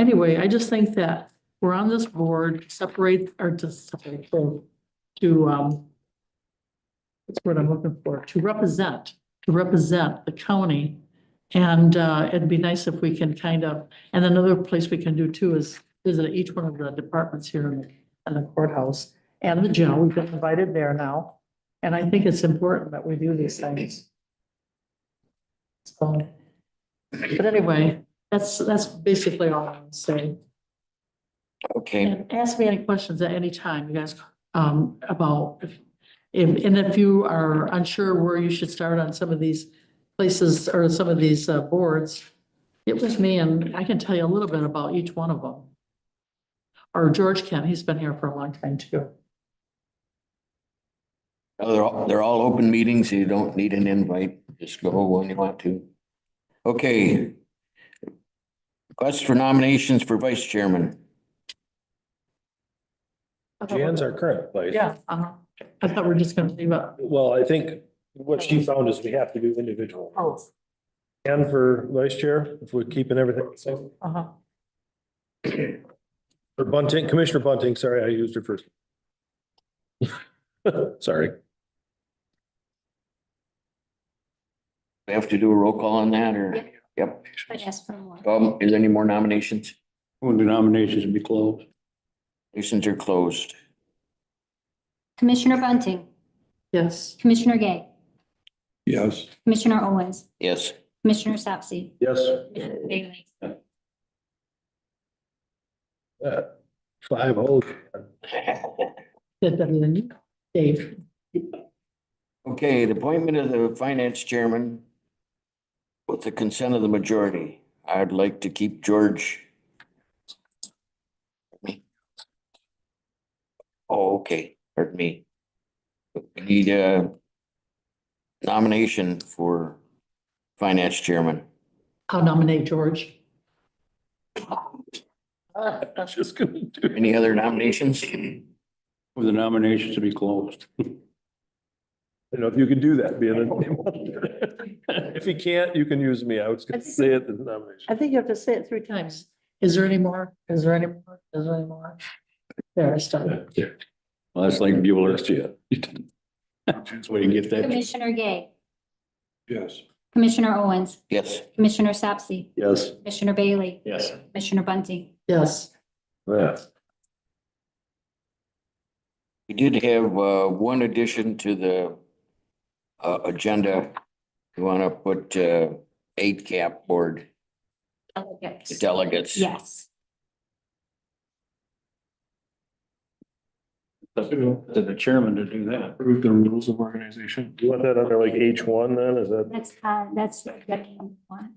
Anyway, I just think that we're on this board, separate, or to separate, to, to, um, what's the word I'm looking for, to represent, to represent the county. And, uh, it'd be nice if we can kind of, and another place we can do too is visit each one of the departments here in, the- in the courthouse and the jail. We've been invited there now. And I think it's important that we do these things. So, but anyway, that's, that's basically all I'm saying. Okay, And ask me any questions at any time, you guys, um, about if, if- and if you are unsure where you should start on some of these places or some of these uh, boards, it was me and I can tell you a little bit about each one of them. Or George Kent, he's been here for a long time too. Oh, they're all, they're all open meetings. You don't need an invite. Just go when you want to. Okay. Request for nominations for vice chairman. Jan's our current place. Yeah, uh-huh. I thought we we're just gonna leave it. Well, I think what she found is we have to do individual. Oh, And for vice chair, if we're keeping everything. So uh-huh. for Bunting, Commissioner Bunting, sorry, I used her first. Sorry. We have to do a roll call on that or? Yep. But ask for more. Um, is there any more nominations? Move the nominations to be closed. Nominations are closed. Commissioner Bunting, Yes, Commissioner Gay, Yes. Commissioner Owens, Yes. Commissioner Sapsy, Yes. Bailey, Uh, Five oh. did better than you, Dave. Okay, the appointment of the finance chairman with the consent of the majority. I'd like to keep George. Oh, okay, pardon me. We Need a nomination for finance chairman. I'll nominate George. I was just gonna do. Any other nominations? Move the nominations to be closed. You know, if you could do that, being a. If you can't, you can use me. I was gonna say it in the I nomination. think you have to say it three times. Is there any more? Is there any more? Is there any more? There, I stopped. Well, that's like Bueller. That's where you get that. Commissioner Gay, Yes. Commissioner Owens, Yes, Commissioner Sapsy, Yes. Commissioner Bailey, Yes. Commissioner Bunting, Yes, Yeah. we did have uh, one addition to the uh, agenda. You want to put uh, eight cap board delegates. delegates? Yes, To the chairman to do that. Prove the rules of organization. You want that under like H one then? Is that? that's, uh, that's. deputy one.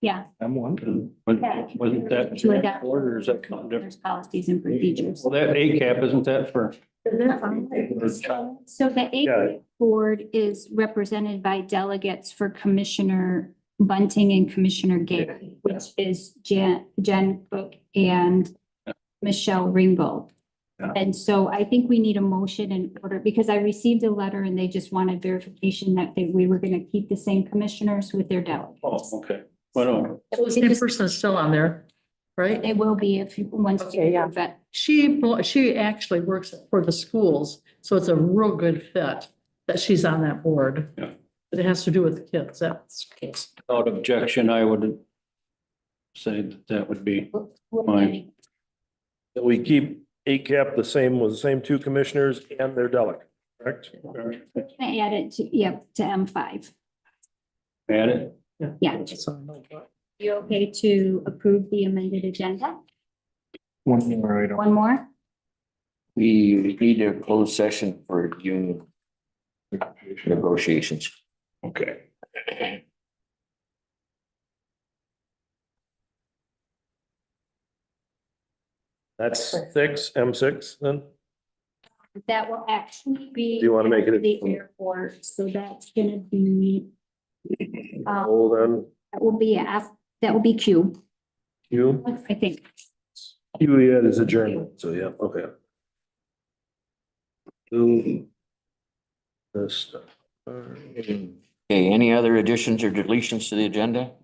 Yeah, I'm wondering. Wasn't wasn't that order, or is that kind of different? there's policies and procedures. Well, that A cap, isn't that for? So so the Yeah. APIC board is represented by delegates for Commissioner Bunting and Commissioner Gay, which is Jan, Jen Cook and Michelle Ringgold. Yeah. And so I think we need a motion in order, because I received a letter and they just wanted verification that they, we were gonna keep the same commissioners with their delegates. Oh, okay. Well, so the same person is still on there, right? They will be if, you once you Okay, yeah. approve it. She, bel- she actually works for the schools, so it's a real good fit that she's on that board. Yeah. But it has to do with the kids, that's the case. without objection, I would say that that would be, Fine. That we keep ACAP the same, with the same two commissioners and their delegate, correct? I add it to, yep, to M five. add it. Yeah. So, You okay to approve the amended agenda? One more item. One more? We need a closed session for union negotiations. Okay. That's six, M six then? That will actually be. Do you wanna make it a- at The airport, so that's gonna be, uh, Oh, then that will be F, that will be Q, Q, I think. Q yeah, is adjournment, so yeah, okay. Ooh. This stuff. Okay, any other additions or deletions to the agenda?